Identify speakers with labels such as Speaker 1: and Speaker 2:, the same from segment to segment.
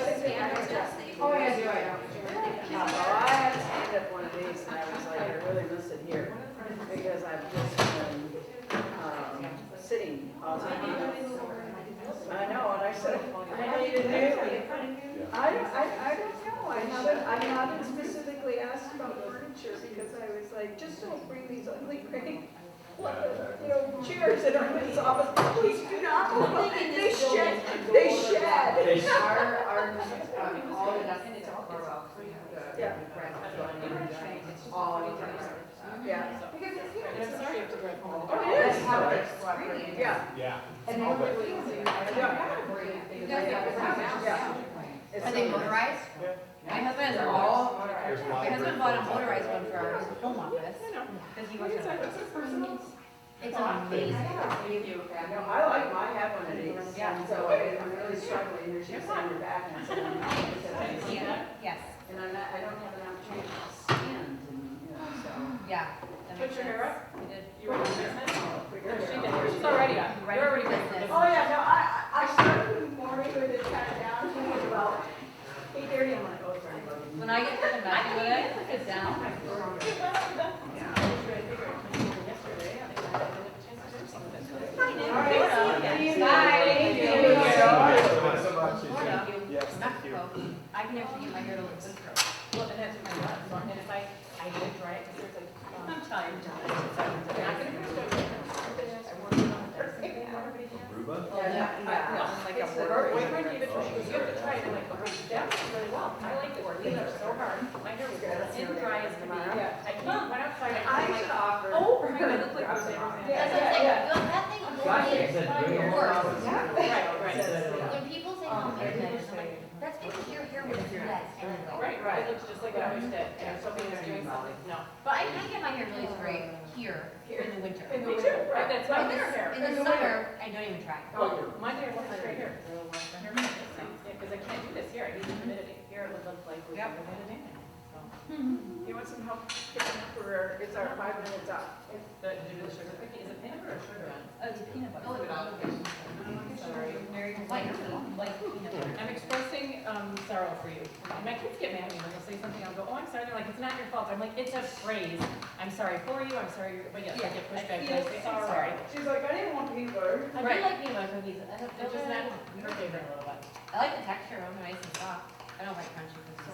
Speaker 1: Oh, yeah, do I?
Speaker 2: Oh, I had to stand up one of these and I was like, I really miss it here because I've just been, um, sitting all the time. I know, and I said, I know you didn't ask me. I don't, I, I don't know, I haven't, I haven't specifically asked about furniture because I was like, just don't bring these ugly gray, you know, chairs in our office, please do not. They shed, they shed.
Speaker 3: They
Speaker 4: Our, our, um, all of us, it's all about the
Speaker 2: Yeah.
Speaker 4: friends, all of us.
Speaker 2: Yeah,
Speaker 4: Because it's here, it's
Speaker 2: Oh, it
Speaker 4: That's
Speaker 2: is.
Speaker 4: how it's spread.
Speaker 2: yeah,
Speaker 3: Yeah.
Speaker 4: And then we're losing.
Speaker 2: Yeah. it's
Speaker 1: Are they
Speaker 2: not-
Speaker 1: motorized? My husband has all,
Speaker 3: There's a lot
Speaker 1: my
Speaker 3: of
Speaker 1: husband
Speaker 3: great
Speaker 1: bought a
Speaker 3: films out
Speaker 1: motorized
Speaker 3: there.
Speaker 1: one for our home office. Because he works on a It's
Speaker 4: I
Speaker 1: amazing.
Speaker 4: gotta give you
Speaker 2: I know,
Speaker 4: that.
Speaker 2: I like my half one of these.
Speaker 1: Yeah.
Speaker 2: So I- I'm really struggling, there's just on your back and so I'm not gonna sit on it.
Speaker 1: Yeah, yes,
Speaker 2: And I'm not, I don't have an opportunity to stand and, you know, so.
Speaker 1: yeah.
Speaker 5: Put your hair up.
Speaker 1: He did.
Speaker 5: You ready for business?
Speaker 2: I'll figure it
Speaker 5: She
Speaker 2: out.
Speaker 5: did. She's already up.
Speaker 1: You're
Speaker 5: You're
Speaker 1: ready
Speaker 5: already
Speaker 1: for business.
Speaker 2: Oh, yeah, no, I, I I started morning with it kind of down, to was about eight thirty, I'm like, oh, sorry.
Speaker 1: When I get to the back with it, I sit down.
Speaker 3: Yeah, it's so much easier.
Speaker 1: Florida,
Speaker 3: Yes, thank you.
Speaker 1: Mexico, I can actually get my hair to look this curly.
Speaker 5: Well, and that's what I love, so I'm gonna fight. I did try it, because it's like, um,
Speaker 1: I'm tired.
Speaker 5: I'm not gonna do it. I worked on it.
Speaker 3: Aruba?
Speaker 1: Yeah,
Speaker 2: yeah.
Speaker 5: No, it's like a word. Wait, wait, wait, wait, you have to try it, I'm like, oh, that was really well, I like the word, leaves are so hard, my hair was thin, dry as can be.
Speaker 2: Yeah.
Speaker 5: I can't, when I was trying to,
Speaker 2: I
Speaker 5: I'm
Speaker 2: should
Speaker 5: like,
Speaker 2: offer.
Speaker 5: oh, my God, I look like I was never.
Speaker 2: Yeah.
Speaker 6: That's what I'm saying, Don't- that thing only works.
Speaker 5: Right, right,
Speaker 6: When people say
Speaker 1: "Oh,
Speaker 6: home haircuts, I'm like, that's because your hair was red anyway.
Speaker 5: right, right, it looks just like I always did, and something was doing something, no.
Speaker 1: But I I get my hair really straight here in the winter.
Speaker 5: Me too, right, that's my
Speaker 1: In the-
Speaker 5: hair hair.
Speaker 1: In the summer, I don't even try.
Speaker 5: Oh, my hair looks straight here. Because I can't do this here, I need the humidity. Here it would look like we have humidity.
Speaker 2: You want some help picking up or is our five minutes up?
Speaker 5: The, do the sugar cookie, is it peanut butter or sugar?
Speaker 1: Oh, it's peanut butter.
Speaker 5: Sorry.
Speaker 1: Like, like peanut butter.
Speaker 5: I'm expressing, um, sorrow for you. And my kids get mad at me when they say something, I'll go, oh, I'm sorry, they're like, it's not your fault. I'm like, it's a phrase. I'm sorry for you, I'm sorry, you're-" but yes, I get pushed back. and I say, I'm sorry.
Speaker 2: She's like, I didn't want to be blurred.
Speaker 5: I do
Speaker 1: Right.
Speaker 5: like peanut butter cookies, I have, they're just not,
Speaker 1: Mm.
Speaker 5: your favorite a little bit.
Speaker 1: I like the texture of them, nice and soft. I don't like crunchy cookies.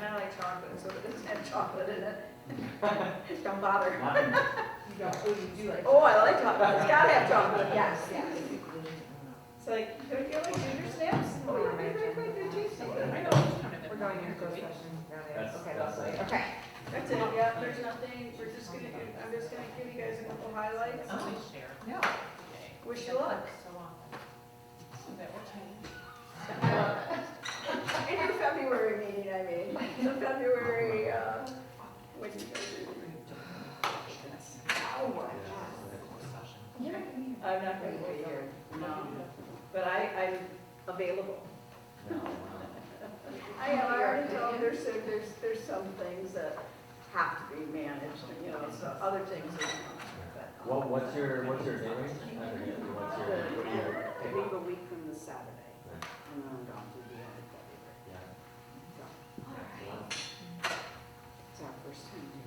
Speaker 2: And I like chocolate, so it doesn't have chocolate in it. Don't bother. Oh, I like chocolate, it's gotta have chocolate, yes, yes. It's like, don't you like ginger snaps? Oh, yeah, they're very good, they're tasty.
Speaker 5: I know, it's kind of.
Speaker 2: We're going into
Speaker 5: different.
Speaker 2: closed session.
Speaker 3: That's-
Speaker 2: Okay,
Speaker 3: that's
Speaker 2: lovely.
Speaker 3: it.
Speaker 2: Okay, that's it, yeah, there's nothing, we're just gonna, do- I'm just gonna give you guys a couple highlights.
Speaker 5: Oh, we share.
Speaker 2: Yeah.
Speaker 5: Okay.
Speaker 2: Wish you luck.
Speaker 5: So often. So that will change.
Speaker 2: In your February meeting, I mean, the February, uh, when you I'm not gonna be here, no, but I, I'm available. I have already told, there's, some- there's, there's some things that have to be managed, you know, so other things are. but- uh,
Speaker 7: What, what's your, what's your name? I forget, what's your, what
Speaker 2: I
Speaker 7: do you?
Speaker 2: leave a week from the Saturday, and then I'm gone through the end of February.
Speaker 7: Yeah.
Speaker 2: It's our first time doing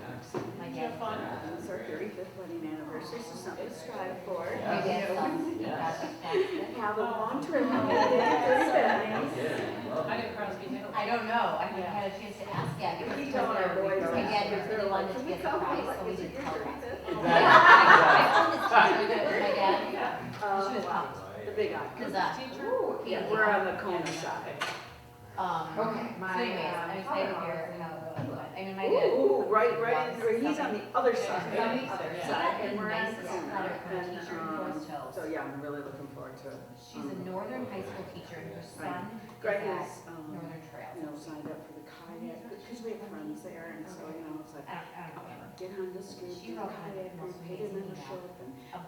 Speaker 2: that, so.
Speaker 1: My
Speaker 5: Have
Speaker 1: dad.
Speaker 5: fun.
Speaker 2: It's our thirty-fifth wedding anniversary, so something to strive for.
Speaker 1: My
Speaker 7: Yeah.
Speaker 1: dad loves, he
Speaker 7: Yes.
Speaker 1: loves that.
Speaker 2: Have a long trip. home.
Speaker 7: Okay, love
Speaker 5: I
Speaker 7: it.
Speaker 5: didn't cross me.
Speaker 1: I don't know. I haven't
Speaker 5: Yeah.
Speaker 1: had a chance to ask yet. because
Speaker 2: We tell our boys
Speaker 1: My dad was really wanted to
Speaker 2: Can we
Speaker 1: get
Speaker 2: come?
Speaker 1: surprised,
Speaker 2: Like,
Speaker 1: so we
Speaker 2: is it
Speaker 1: didn't
Speaker 2: your
Speaker 1: tell him.
Speaker 2: 35th?
Speaker 1: Yeah,
Speaker 7: Exactly.
Speaker 1: I I told this teacher that my dad,
Speaker 2: Uh,
Speaker 1: she was
Speaker 2: wow.
Speaker 1: hot.
Speaker 2: The big eye.
Speaker 1: Cause, uh,
Speaker 2: Ooh, yeah, we're on the Kona side.
Speaker 1: um,
Speaker 4: Okay,
Speaker 1: so
Speaker 4: my,
Speaker 1: anyways,
Speaker 4: um,
Speaker 1: I'm excited to hear how it goes, but, I mean, my dad.
Speaker 2: Ooh, right, right, in there. he's on the other side,
Speaker 5: Yeah.
Speaker 2: on the other
Speaker 1: She
Speaker 2: side,
Speaker 1: got the
Speaker 2: and we're on the
Speaker 1: nicest letter
Speaker 2: Kona.
Speaker 1: from a
Speaker 2: And,
Speaker 1: teacher in Forest
Speaker 2: um,
Speaker 1: Hills.
Speaker 2: so yeah, I'm really looking forward to it.
Speaker 1: She's a northern high school teacher and her son is
Speaker 2: Greg
Speaker 1: at
Speaker 2: is, um,
Speaker 1: Northern
Speaker 2: you
Speaker 1: Trails.
Speaker 2: know, signed up for the kayak, because we have friends there, and so, you know, it's like,
Speaker 1: I don't, I don't know
Speaker 2: get on the scoop, do the kayak, and pay them in the shop, and
Speaker 1: about